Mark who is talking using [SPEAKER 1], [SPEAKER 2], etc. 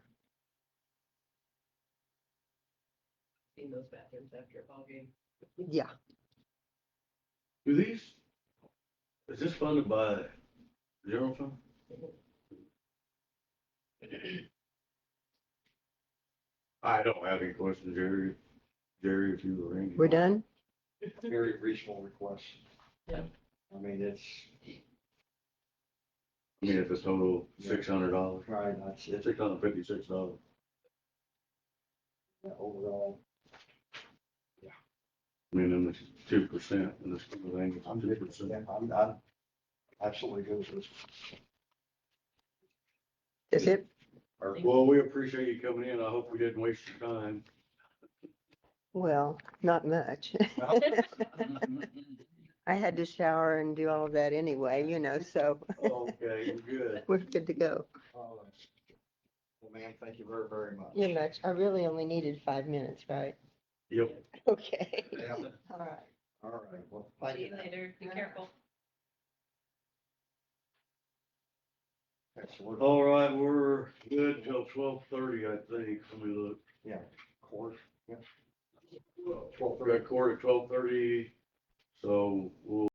[SPEAKER 1] in those bathrooms after a ball game.
[SPEAKER 2] Yeah,
[SPEAKER 3] Do these, is this funded by general fund? I don't have any questions, Jerry. Jerry, if you arrange.
[SPEAKER 2] we're done.
[SPEAKER 4] very reasonable request.
[SPEAKER 1] Yeah.
[SPEAKER 4] I mean, it's,
[SPEAKER 3] I mean, it's a total six hundred dollars,
[SPEAKER 4] right, that's, it's
[SPEAKER 3] six hundred fifty-six dollars.
[SPEAKER 4] overall,
[SPEAKER 3] I mean, and it's two percent in this kind of thing.
[SPEAKER 4] I'm
[SPEAKER 3] two
[SPEAKER 4] good with
[SPEAKER 3] percent.
[SPEAKER 4] that. I'm, I'm absolutely good with this.
[SPEAKER 2] That's it.
[SPEAKER 4] Or-
[SPEAKER 3] Well, we appreciate you coming in. I hope we didn't waste your time.
[SPEAKER 2] Well, not much. I had to shower and do all of that anyway, you know, so
[SPEAKER 3] Okay, we're good.
[SPEAKER 2] we're good to go.
[SPEAKER 4] Well, ma'am, thank you very, very much.
[SPEAKER 2] You're much, I really only needed five minutes, right?
[SPEAKER 3] Yep.
[SPEAKER 2] Okay.
[SPEAKER 4] Yeah,
[SPEAKER 2] All right.
[SPEAKER 4] all right, well, thank
[SPEAKER 1] See
[SPEAKER 4] you.
[SPEAKER 1] you later, be careful.
[SPEAKER 4] That's what-
[SPEAKER 3] All right, we're good till twelve thirty, I think. Let me look.
[SPEAKER 4] Yeah, of course, yeah.
[SPEAKER 3] Twelve thirty, quarter, twelve thirty, so we'll